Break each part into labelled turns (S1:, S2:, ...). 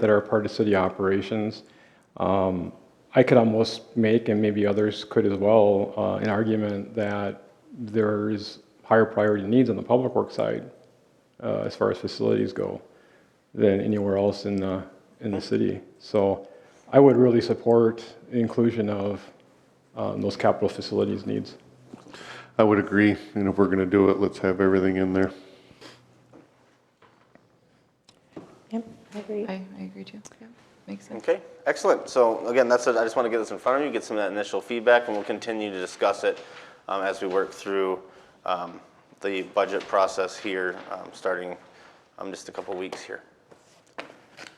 S1: that are part of city operations. Um, I could almost make, and maybe others could as well, uh, an argument that there is higher priority needs on the public works side uh, as far as facilities go than anywhere else in the, in the city. So I would really support the inclusion of um, those capital facilities needs.
S2: I would agree, and if we're going to do it, let's have everything in there.
S3: Yep, I agree.
S4: I, I agree too. Yeah, Makes sense.
S5: Okay, excellent. So again, that's it. I just want to get this in front of you, get some of that initial feedback, and we'll continue to discuss it um, as we work through um, the budget process here, um, starting um, just a couple weeks here.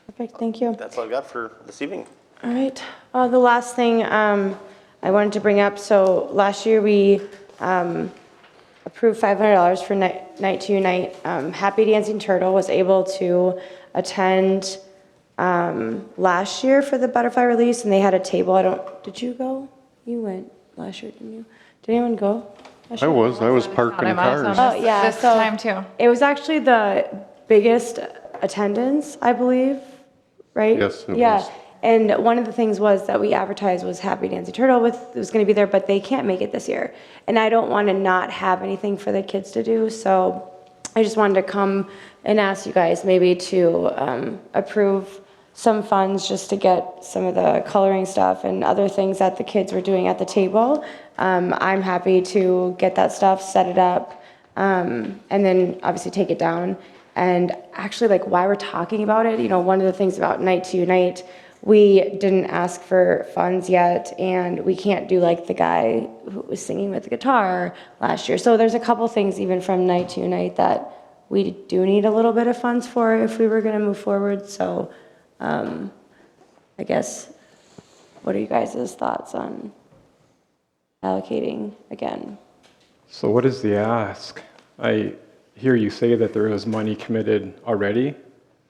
S3: Perfect, thank you.
S5: That's all I got for this evening.
S3: All right, Uh, the last thing um, I wanted to bring up, so last year we um, approved $500 for Ni- Night to Unite. Um, Happy Dancing Turtle was able to attend um, last year for the butterfly release, and they had a table, I don't, did you go? You went last year, didn't you? Did anyone go? last
S2: I
S3: year?
S2: was, I was
S4: Thought
S2: parking
S4: I'm awesome.
S2: cars.
S3: Oh, yeah,
S4: This
S3: so-
S4: time too.
S3: It was actually the biggest attendance, I believe, right?
S2: Yes, it
S3: yeah.
S2: was.
S3: And one of the things was that we advertised was Happy Dancing Turtle with was going to be there, but they can't make it this year. And I don't want to not have anything for the kids to do, so I just wanted to come and ask you guys maybe to um, approve some funds just to get some of the coloring stuff and other things that the kids were doing at the table. Um, I'm happy to get that stuff, set it up, um, and then obviously take it down. And actually, like why we're talking about it, you know, one of the things about Night to Unite, we didn't ask for funds yet, and we can't do like the guy who was singing with the guitar last year. So there's a couple things even from Night to Unite that we do need a little bit of funds for if we were going to move forward. So um, I guess, what are you guys' thoughts on allocating again?
S1: So what is the ask? I hear you say that there is money committed already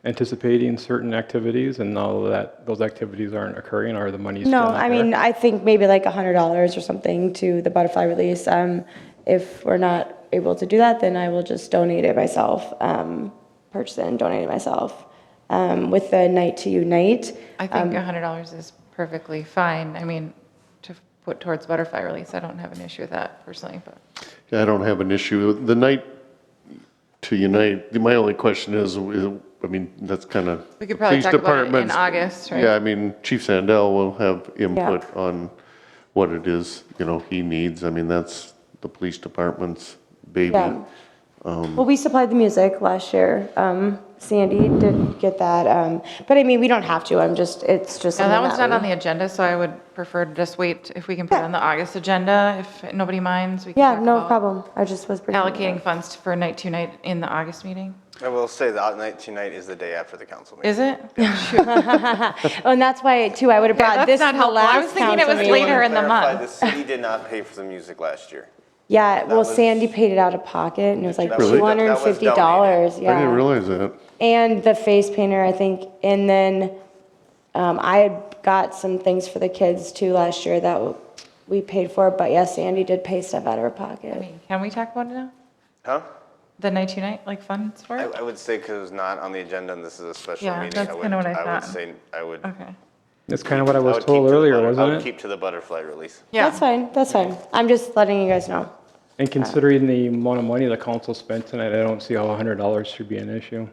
S1: anticipating certain activities and now that those activities aren't occurring or the money's still
S3: No,
S1: not
S3: I
S1: there?
S3: mean, I think maybe like $100 or something to the butterfly release. Um, If we're not able to do that, then I will just donate it myself, um, purchase it and donate it myself. Um, With the Night to Unite,
S4: I think $100 is perfectly fine. I mean, to put towards butterfly release, I don't have an issue with that personally, but.
S2: I don't have an issue. The night to unite, my only question is, I mean, that's kind of.
S4: We could probably talk about it in August, right?
S2: Yeah, I mean, Chief Sandell will have input on what it is, you know, he needs. I mean, that's the police department's baby.
S3: Yeah. Um, Well, we supplied the music last year. Um, Sandy did get that, um, but I mean, we don't have to. I'm just, it's just.
S4: Now, that
S3: something
S4: one's not on
S3: we-
S4: the agenda, so I would prefer to just wait if we can put it on the August agenda, if nobody minds. we can
S3: Yeah,
S4: talk
S3: no
S4: about
S3: problem. I just was. bringing it up.
S4: Allocating funds for night to night in the August meeting.
S5: I will say that night tonight is the day after the council meeting.
S4: Is it?
S3: Oh, and that's why too. I would have brought
S4: that's
S3: this.
S4: not
S3: to the
S4: helpful. I
S3: last
S4: was thinking it
S3: council
S4: was
S3: meeting.
S4: later in the
S5: Clarify,
S4: month.
S5: The city did not pay for the music last year.
S3: Yeah, well,
S5: was-
S3: Sandy paid it out of pocket, and it was like
S5: That was-
S3: two hundred and fifty dollars.
S2: I didn't
S3: Yeah,
S2: realize that.
S3: and the face painter, I think, and then um, I had got some things for the kids too last year that w- we paid for. But yeah, Sandy did pay stuff out of her
S4: I
S3: pocket.
S4: mean, Can we talk about it now?
S5: Huh?
S4: The night to night, like funds for
S5: I,
S4: it?
S5: I would say because it was not on the agenda and this is a special
S4: Yeah,
S5: meeting.
S4: that's
S5: I would-
S4: kinda what I
S5: I would
S4: thought.
S5: say, I would. I
S4: Okay.
S1: That's kind of what I
S5: would
S1: was
S5: keep
S1: told
S5: to the
S1: earlier,
S5: butter- I
S1: wasn't
S5: would
S1: it?
S5: keep to the butterfly release.
S4: Yeah.
S3: That's fine. That's fine. I'm just letting you guys know.
S1: And considering the amount of money the council spent tonight, I don't see how $100 should be an issue.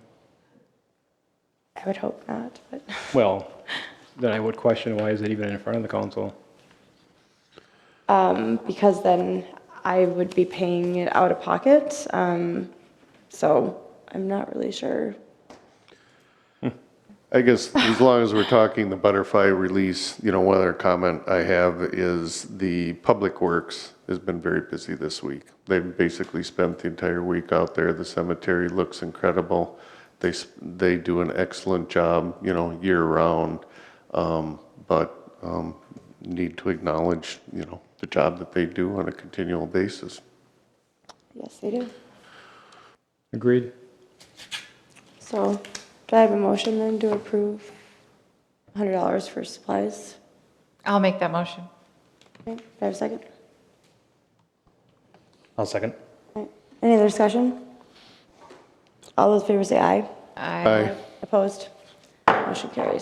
S3: I would hope not, but
S1: Well, then I would question why is it even in front of the council?
S3: um, because then I would be paying it out of pocket. Um, so I'm not really sure.
S2: I guess as long as we're talking the butterfly release, you know, one other comment I have is the Public Works has been very busy this week. They've basically spent the entire week out there. The cemetery looks incredible. They, s- they do an excellent job, you know, year round. Um, but, um, need to acknowledge, you know, the job that they do on a continual basis.
S3: Yes, they do.
S1: Agreed?
S3: So do I have a motion then to approve $100 for supplies?
S4: I'll make that motion.
S3: Okay, do I have a second?
S6: I'll second.
S3: Alright, Any other discussion? All those in favor say aye.
S4: I
S2: I,
S3: Opposed? Motion carries.